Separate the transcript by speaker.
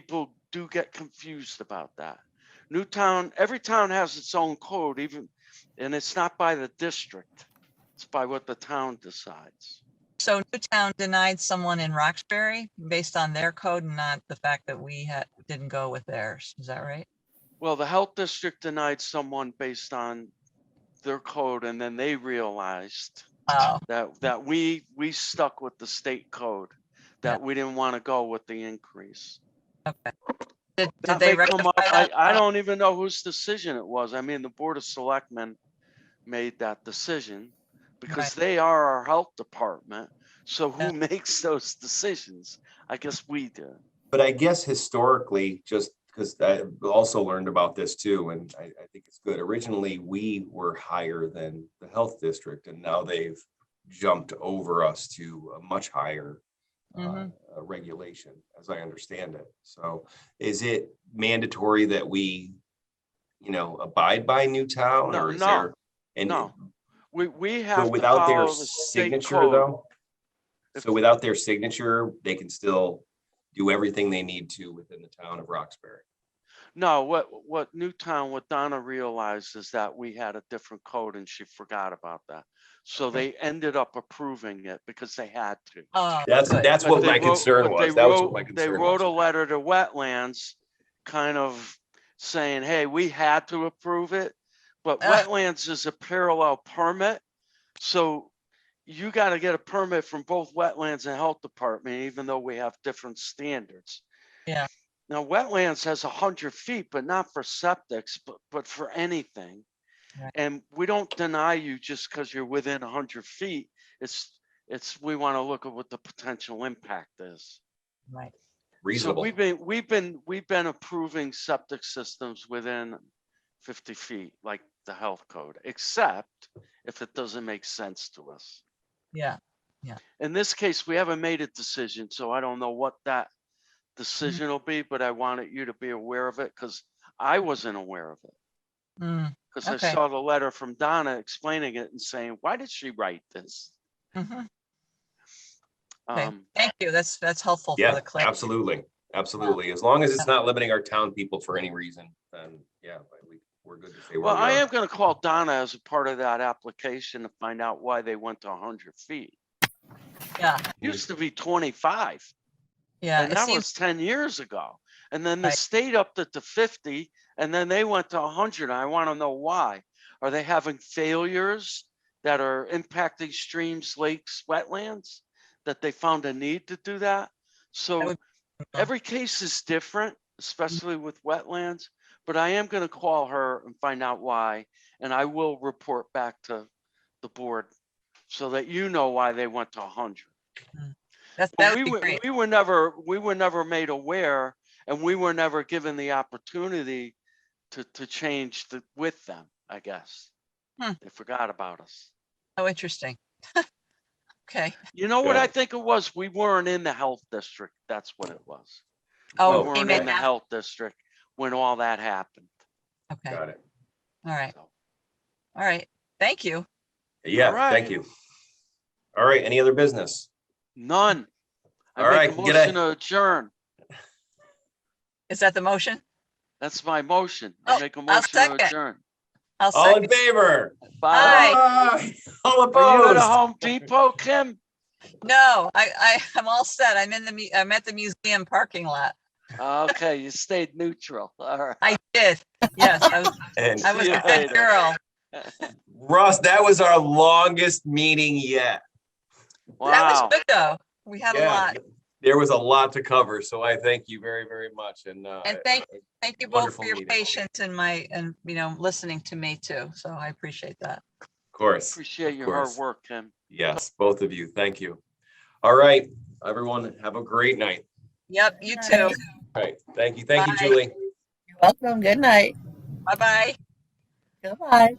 Speaker 1: people do get confused about that. Newtown, every town has its own code, even, and it's not by the district. It's by what the town decides.
Speaker 2: So Newtown denied someone in Roxbury based on their code and not the fact that we had, didn't go with theirs. Is that right?
Speaker 1: Well, the health district denied someone based on their code, and then they realized
Speaker 2: Oh,
Speaker 1: that, that we, we stuck with the state code, that we didn't want to go with the increase.
Speaker 2: okay. Did, did
Speaker 1: That
Speaker 2: they
Speaker 1: may come
Speaker 2: rectify
Speaker 1: up. I,
Speaker 2: that?
Speaker 1: I don't even know whose decision it was. I mean, the Board of Selectmen made that decision because
Speaker 2: Right.
Speaker 1: they are our health department. So
Speaker 2: Yeah.
Speaker 1: who makes those decisions? I guess we do.
Speaker 3: But I guess historically, just because I also learned about this too, and I, I think it's good. Originally, we were higher than the health district and now they've jumped over us to a much higher uh,
Speaker 2: Mhm.
Speaker 1: Mm-hmm.
Speaker 3: uh, regulation, as I understand it. So is it mandatory that we, you know, abide by Newtown
Speaker 1: No,
Speaker 3: or is
Speaker 1: no,
Speaker 3: there? And
Speaker 1: no. We, we have
Speaker 3: so
Speaker 1: to
Speaker 3: without their
Speaker 1: follow the state
Speaker 3: signature
Speaker 1: code.
Speaker 3: though?
Speaker 1: If-
Speaker 3: So without their signature, they can still do everything they need to within the town of Roxbury.
Speaker 1: No, what, what Newtown, what Donna realized is that we had a different code and she forgot about that. So they ended up approving it because they had to.
Speaker 2: Oh,
Speaker 3: That's,
Speaker 2: good.
Speaker 3: that's
Speaker 1: But
Speaker 3: what
Speaker 1: they
Speaker 3: my
Speaker 1: wrote-
Speaker 3: concern
Speaker 1: but
Speaker 3: was.
Speaker 1: they
Speaker 3: That was
Speaker 1: wrote-
Speaker 3: what my
Speaker 1: They
Speaker 3: concern
Speaker 1: wrote a
Speaker 3: was.
Speaker 1: letter to wetlands, kind of saying, hey, we had to approve it. But
Speaker 2: Ah.
Speaker 1: wetlands is a parallel permit, so you gotta get a permit from both wetlands and health department, even though we have different standards.
Speaker 2: Yeah.
Speaker 1: Now, wetlands has a hundred feet, but not for septics, but, but for anything.
Speaker 2: Right.
Speaker 1: And we don't deny you just because you're within a hundred feet. It's, it's, we want to look at what the potential impact is.
Speaker 2: Right.
Speaker 1: So
Speaker 3: Reasonable.
Speaker 1: we've been, we've been, we've been approving septic systems within fifty feet, like the health code, except if it doesn't make sense to us.
Speaker 2: Yeah,
Speaker 1: In this case, we haven't made a decision, so I don't know what that decision will be, but I wanted you to be aware of it because I wasn't aware of it.
Speaker 2: Mm,
Speaker 1: Because I
Speaker 2: Okay.
Speaker 1: saw the letter from Donna explaining it and saying, why did she write this?
Speaker 2: mhm. Okay.
Speaker 1: Um,
Speaker 2: Thank you. That's, that's helpful for
Speaker 3: Yeah,
Speaker 2: the clarity.
Speaker 3: absolutely. Absolutely. As long as it's not limiting our town people for any reason, then yeah, but we, we're good to say. where
Speaker 1: Well,
Speaker 3: we
Speaker 1: I
Speaker 3: are.
Speaker 1: am gonna call Donna as a part of that application to find out why they went to hundred feet.
Speaker 2: Yeah,
Speaker 1: Used to be twenty-five,
Speaker 2: yeah.
Speaker 1: and
Speaker 2: It
Speaker 1: that
Speaker 2: seems,
Speaker 1: was ten years ago. And then the
Speaker 2: Right.
Speaker 1: state upped it to fifty, and then they went to hundred. I wanna know why. Are they having failures that are impacting streams, lakes, wetlands? That they found a need to do that? So
Speaker 2: would cool.
Speaker 1: every case is different, especially with wetlands. But I am gonna call her and find out why, and I will report back to the board so that you know why they went to hundred.
Speaker 2: that's,
Speaker 1: Well,
Speaker 2: that would
Speaker 1: we
Speaker 2: be
Speaker 1: were-
Speaker 2: great.
Speaker 1: We were never, we were never made aware and we were never given the opportunity to, to change the, with them, I guess.
Speaker 2: Hmm.
Speaker 1: They forgot about us.
Speaker 2: Oh, interesting. Okay.
Speaker 1: You know what
Speaker 3: Yeah.
Speaker 1: I think it was? We weren't in the health district. That's what it was. We
Speaker 3: Oh,
Speaker 2: Oh, he
Speaker 1: weren't in
Speaker 2: meant
Speaker 1: the
Speaker 2: that.
Speaker 1: health district when all that happened.
Speaker 2: Okay, all
Speaker 3: Got it.
Speaker 2: right,
Speaker 1: so.
Speaker 2: all right. Thank you.
Speaker 3: Yeah,
Speaker 1: Alright.
Speaker 3: thank you. All right, any other business?
Speaker 1: None.
Speaker 3: All
Speaker 1: I make a
Speaker 3: right, g'day.
Speaker 1: motion to adjourn.
Speaker 2: Is that the motion?
Speaker 1: That's my motion.
Speaker 2: Oh,
Speaker 1: I make a
Speaker 2: I'll
Speaker 1: motion to
Speaker 2: second.
Speaker 1: adjourn.
Speaker 2: I'll
Speaker 3: All in
Speaker 2: second.
Speaker 3: favor?
Speaker 1: Bye.
Speaker 3: Aye. All
Speaker 1: Are you at a
Speaker 3: opposed?
Speaker 1: Home Depot, Kim?
Speaker 2: No, I, I, I'm all set. I'm in the, mu- I'm at the museum parking lot.
Speaker 1: Okay, you stayed neutral. All right.
Speaker 2: I did. Yes, I was,
Speaker 3: And
Speaker 2: I was
Speaker 1: See
Speaker 2: a
Speaker 1: you
Speaker 2: good
Speaker 1: later.
Speaker 2: girl.
Speaker 3: Russ, that was our longest meeting yet.
Speaker 2: That
Speaker 1: Wow.
Speaker 2: was good though. We had a
Speaker 3: Yeah,
Speaker 2: lot.
Speaker 3: There was a lot to cover, so I thank you very, very much and. uh,
Speaker 2: And thank- Thank you both for
Speaker 3: wonderful
Speaker 2: your
Speaker 3: meeting.
Speaker 2: patience and my, and, you know, listening to me too. So I appreciate that.
Speaker 3: Of course.
Speaker 1: Appreciate your
Speaker 3: course.
Speaker 1: hard work, Kim.
Speaker 3: Yes, both of you. Thank you. All right, everyone, have a great night.
Speaker 2: Yep, you
Speaker 4: All
Speaker 2: too.
Speaker 4: right.
Speaker 3: All right, thank you. Thank you,
Speaker 2: Bye.
Speaker 3: Julie.
Speaker 4: You're welcome. Good night.
Speaker 2: Bye bye.
Speaker 4: Goodbye.